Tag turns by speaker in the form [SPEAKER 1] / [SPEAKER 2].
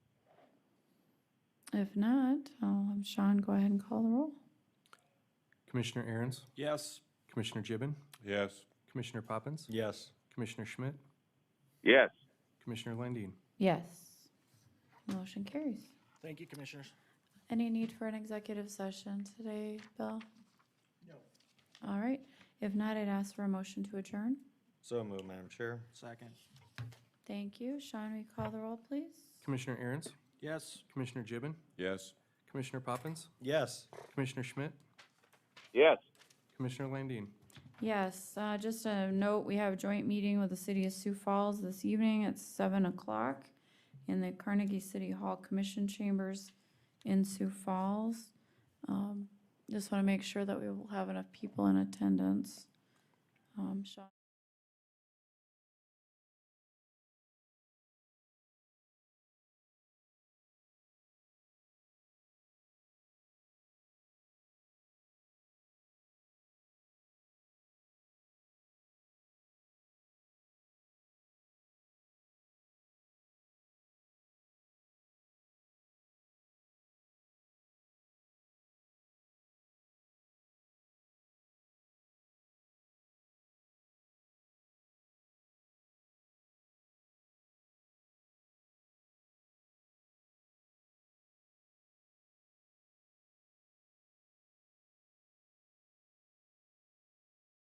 [SPEAKER 1] If not, I'll have Sean go ahead and call the roll.
[SPEAKER 2] Commissioner Aaron's,
[SPEAKER 3] Yes.
[SPEAKER 2] Commissioner Gibbon,
[SPEAKER 3] Yes.
[SPEAKER 2] Commissioner Poppins,
[SPEAKER 3] Yes.
[SPEAKER 2] Commissioner Schmidt,
[SPEAKER 4] Yes.
[SPEAKER 2] Commissioner Landine.
[SPEAKER 1] Yes. Motion carries.
[SPEAKER 3] Thank you, Commissioners.
[SPEAKER 1] Any need for an executive session today, Bill? No. All right. If not, I'd ask for a motion to adjourn.
[SPEAKER 3] So moved, Madam Chair. Second.
[SPEAKER 1] Thank you. Sean, will you call the roll, please?
[SPEAKER 2] Commissioner Aaron's,
[SPEAKER 3] Yes.
[SPEAKER 2] Commissioner Gibbon,
[SPEAKER 3] Yes.
[SPEAKER 2] Commissioner Poppins,
[SPEAKER 3] Yes.
[SPEAKER 2] Commissioner Schmidt,
[SPEAKER 4] Yes.
[SPEAKER 2] Commissioner Landine.
[SPEAKER 1] Yes, uh, just a note, we have a joint meeting with the city of Sioux Falls this evening at seven o'clock in the Carnegie City Hall Commission Chambers in Sioux Falls. Um, Just want to make sure that we will have enough people in attendance. Um, Sean?